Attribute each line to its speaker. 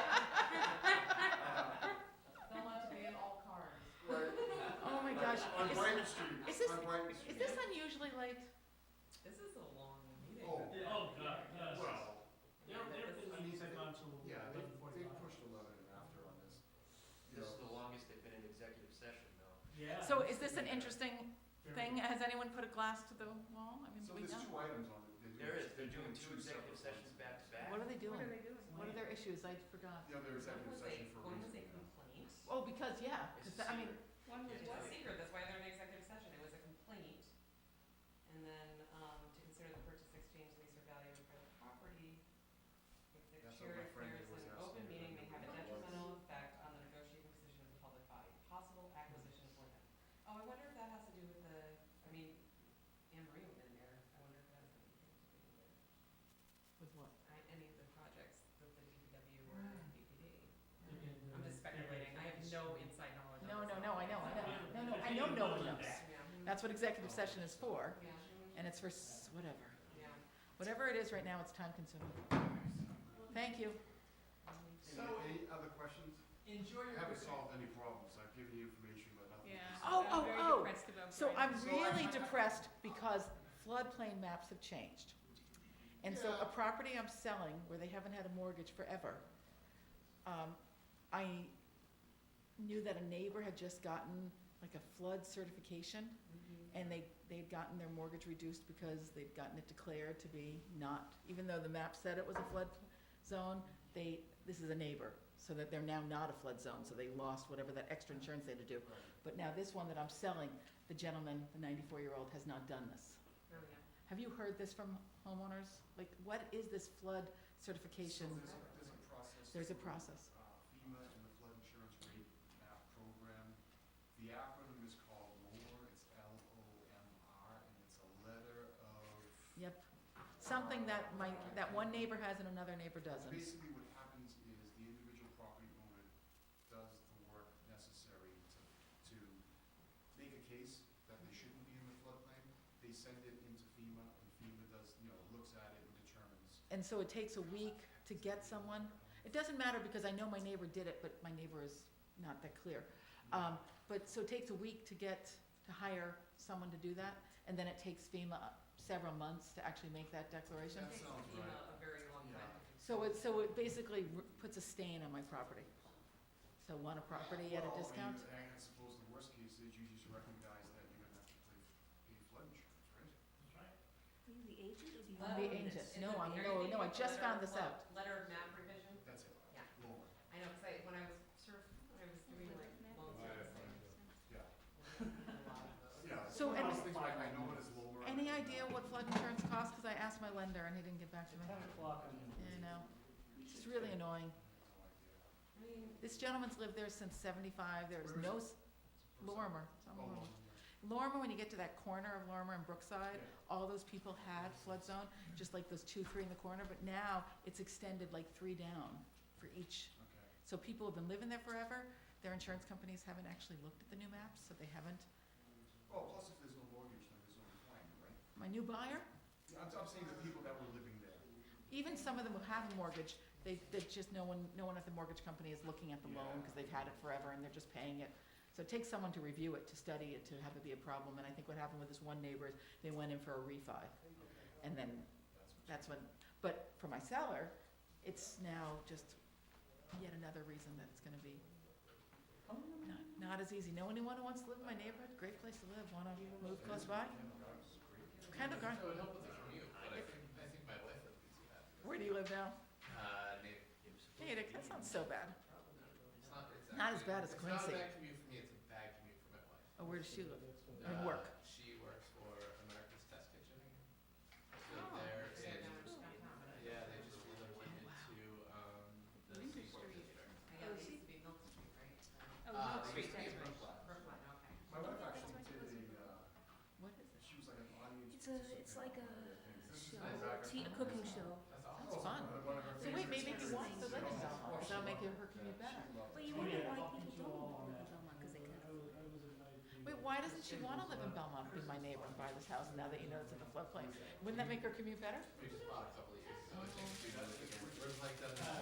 Speaker 1: Oh
Speaker 2: Yeah.
Speaker 1: So
Speaker 2: that's
Speaker 1: is this an
Speaker 2: pretty
Speaker 1: interesting
Speaker 2: fair.
Speaker 1: thing? Has anyone put a glass to the wall? I mean,
Speaker 3: So
Speaker 1: we
Speaker 3: there's
Speaker 1: know.
Speaker 3: two items on it.
Speaker 4: There is, they're doing two executive sessions back to back.
Speaker 1: What are they doing?
Speaker 5: they doing?
Speaker 1: What are their issues? I forgot.
Speaker 3: The other executive session for a
Speaker 5: One was
Speaker 3: reason.
Speaker 5: a complaint,
Speaker 1: Oh, because, yeah, 'cause
Speaker 4: It's
Speaker 1: that- I mean,
Speaker 4: secret.
Speaker 5: one was,
Speaker 4: Yeah.
Speaker 5: well, secret, that's why they're in executive session, it was a complaint. And then, um, to consider the purchase, exchange, lease, or value of private property. If the
Speaker 3: That's what my
Speaker 5: chair
Speaker 3: friend
Speaker 5: declares
Speaker 3: was
Speaker 5: an
Speaker 3: asking
Speaker 5: open
Speaker 3: about
Speaker 5: meeting may have
Speaker 3: what
Speaker 5: a
Speaker 3: it was.
Speaker 5: detrimental effect on the negotiating position of the public body, possible acquisition for them. Oh, I wonder if that has to do with the, I mean, Anne Marie went in there, I wonder if that has anything to do with
Speaker 1: with what?
Speaker 5: I, any of the projects with the DPW or
Speaker 1: Right.
Speaker 5: DPD.
Speaker 2: They're getting
Speaker 5: I'm
Speaker 2: their-
Speaker 5: just speculating, I have no inside knowledge
Speaker 1: No,
Speaker 5: on this. at
Speaker 1: no, no,
Speaker 5: all.
Speaker 1: I know, I know.
Speaker 2: Yeah.
Speaker 1: No, no, I
Speaker 2: If
Speaker 1: know
Speaker 2: you
Speaker 1: no
Speaker 2: vote
Speaker 1: one
Speaker 2: on
Speaker 1: knows.
Speaker 2: that,
Speaker 5: Yeah.
Speaker 1: That's what executive session is for,
Speaker 5: Yeah.
Speaker 1: and it's for s- whatever.
Speaker 5: Yeah.
Speaker 1: Whatever it is right now, it's time consuming. Thank you.
Speaker 3: So, any other questions?
Speaker 2: Enjoy
Speaker 3: I
Speaker 2: your.
Speaker 3: haven't solved any problems, I've given you information, but nothing.
Speaker 5: Yeah.
Speaker 1: Oh,
Speaker 5: I'm
Speaker 1: oh,
Speaker 5: very
Speaker 1: oh.
Speaker 5: depressed about
Speaker 1: So
Speaker 5: Brian.
Speaker 1: I'm really depressed because floodplain maps have changed. And so a property I'm selling where they haven't had a mortgage forever, um, I knew that a neighbor had just gotten like a flood certification
Speaker 5: Mhm.
Speaker 1: and they, they'd gotten their mortgage reduced because they'd gotten it declared to be not, even though the map said it was a flood zone, they, this is a neighbor, so that they're now not a flood zone, so they lost whatever that extra insurance they had to do.
Speaker 3: Right.
Speaker 1: But now this one that I'm selling, the gentleman, the ninety-four-year-old, has not done this.
Speaker 5: Oh, yeah.
Speaker 1: Have you heard this from homeowners? Like, what is this flood certification?
Speaker 3: So there's a, there's a process.
Speaker 1: There's a
Speaker 3: through,
Speaker 1: process.
Speaker 3: uh, FEMA and the flood insurance rate map program. The acronym is called LOMR, it's L O M R, and it's a letter of.
Speaker 1: Yep, something that my, that one neighbor has and another neighbor doesn't.
Speaker 3: Basically, what happens is the individual property owner does the work necessary to, to make a case that they shouldn't be in the floodplain. They send it into FEMA, and FEMA does, you know, looks at it and determines.
Speaker 1: And so it takes a week to get someone. It doesn't matter because I know my neighbor did it, but my neighbor is not that clear. Um, but, so it takes a week to get, to hire someone to do that, and then it takes FEMA several months to actually make that declaration.
Speaker 3: That sounds
Speaker 5: Takes FEMA
Speaker 3: right.
Speaker 5: a very long time.
Speaker 3: Yeah.
Speaker 5: to do.
Speaker 1: So it, so it basically r- puts a stain on my property. So want a property at
Speaker 3: Well, I
Speaker 1: a
Speaker 3: mean,
Speaker 1: discount?
Speaker 3: I suppose the worst case is you just recognize that you're gonna have to pay, pay flood insurance, right?
Speaker 2: That's right.
Speaker 1: Well, the
Speaker 5: Love
Speaker 1: agent.
Speaker 5: this.
Speaker 1: No,
Speaker 5: Isn't-
Speaker 1: I'm-
Speaker 5: are you
Speaker 1: no,
Speaker 5: thinking
Speaker 1: no, I
Speaker 5: of the
Speaker 1: just
Speaker 5: letter
Speaker 1: found
Speaker 5: of
Speaker 1: this
Speaker 5: lo-
Speaker 1: out.
Speaker 5: Letter of map revision?
Speaker 3: That's it.
Speaker 5: Yeah.
Speaker 3: Lower,
Speaker 5: I know, 'cause I, when I was sort of, when I was doing like loan
Speaker 6: Oh,
Speaker 5: servicing.
Speaker 3: yeah.
Speaker 5: I did a lot of those.
Speaker 3: Yeah.
Speaker 1: So,
Speaker 3: one of
Speaker 1: and-
Speaker 3: those things, like, I know it is lower. I
Speaker 1: Any
Speaker 3: don't
Speaker 1: idea
Speaker 3: know.
Speaker 1: what flood insurance costs? Because I asked my lender and he didn't get back to
Speaker 2: It's
Speaker 1: me.
Speaker 2: ten o'clock on the.
Speaker 1: You know, it's just really annoying.
Speaker 3: No idea.
Speaker 5: I mean,
Speaker 1: This gentleman's lived there since seventy-five. There is
Speaker 3: Where is
Speaker 1: no,
Speaker 3: it?
Speaker 1: s-
Speaker 3: It's
Speaker 1: Lorimer.
Speaker 3: Oh,
Speaker 1: somewhere.
Speaker 3: Lorimer,
Speaker 1: Lorimer, when you get to that corner of Lorimer and
Speaker 3: yeah.
Speaker 1: Brookside,
Speaker 3: Yeah.
Speaker 1: all those people had flood zone, just like those two, three in the corner, but now it's extended like three down for each.
Speaker 3: Okay.
Speaker 1: So people have been living there forever. Their insurance companies haven't actually looked at the new maps, so they haven't.
Speaker 3: Oh, plus if there's no mortgage, then there's no claim, right?
Speaker 1: My new buyer,
Speaker 3: Yeah, I'm, I'm saying the people that were living there.
Speaker 1: even some of them who have a mortgage, they, they just, no one, no one at the mortgage company is looking at the loan because they've had it forever and they're just paying it. So it takes someone to review it, to study it, to have it be a problem. And I think what happened with this one neighbor is they went in for a refi. And then
Speaker 3: That's
Speaker 1: that's when, but for my seller, it's now just yet another reason that it's gonna be not, not as easy. Know anyone who wants to live in my neighborhood? Great place to live. Wanna move close by? Kendall Gar,
Speaker 7: It would help with the commute, but I think, I think my wife would be too happy.
Speaker 1: where do you live now?
Speaker 7: Uh, Natick.
Speaker 1: Natick, that sounds so bad.
Speaker 7: It's
Speaker 1: Not
Speaker 7: not, it's
Speaker 1: as
Speaker 7: actually-
Speaker 1: bad as Quincy.
Speaker 7: It's not a bad commute for me, it's a bad commute for my wife.
Speaker 1: Oh, where does she live? And
Speaker 7: Uh,
Speaker 1: work.
Speaker 7: She works for America's Test Kitchen. She lived
Speaker 5: Oh,
Speaker 7: there,
Speaker 5: so
Speaker 7: and,
Speaker 5: now it's downtown, but I-
Speaker 7: yeah, they just relocated to, um, the
Speaker 5: Winter
Speaker 7: Seaport
Speaker 5: Street.
Speaker 7: District.
Speaker 5: I guess it used to be Milk Street, right?
Speaker 7: Oh, Milk Street,
Speaker 5: That's
Speaker 7: that's
Speaker 5: right.
Speaker 7: right.
Speaker 5: Brookline, okay.
Speaker 3: My wife actually did a, uh,
Speaker 1: What is it?
Speaker 3: she was like an audience.
Speaker 6: It's a- it's like a show, tea,
Speaker 3: a
Speaker 6: a cooking show.
Speaker 7: That's awesome.
Speaker 1: That's fun. So wait, maybe if you want to live in Belmont, that'll make it- her commute better.
Speaker 6: But you
Speaker 2: Oh,
Speaker 6: wonder
Speaker 2: yeah.
Speaker 6: why
Speaker 2: I'll
Speaker 6: people
Speaker 2: meet you
Speaker 6: don't
Speaker 2: all on
Speaker 6: live in
Speaker 2: that.
Speaker 6: Belmont, because they can't
Speaker 2: I was, I was invited to.
Speaker 1: Wait, why doesn't she wanna live in Belmont, be my neighbor and buy this house now that you know it's in the floodplain? Wouldn't that make her commute better?
Speaker 7: We just bought a couple of years ago, I think, she does, we're like, doesn't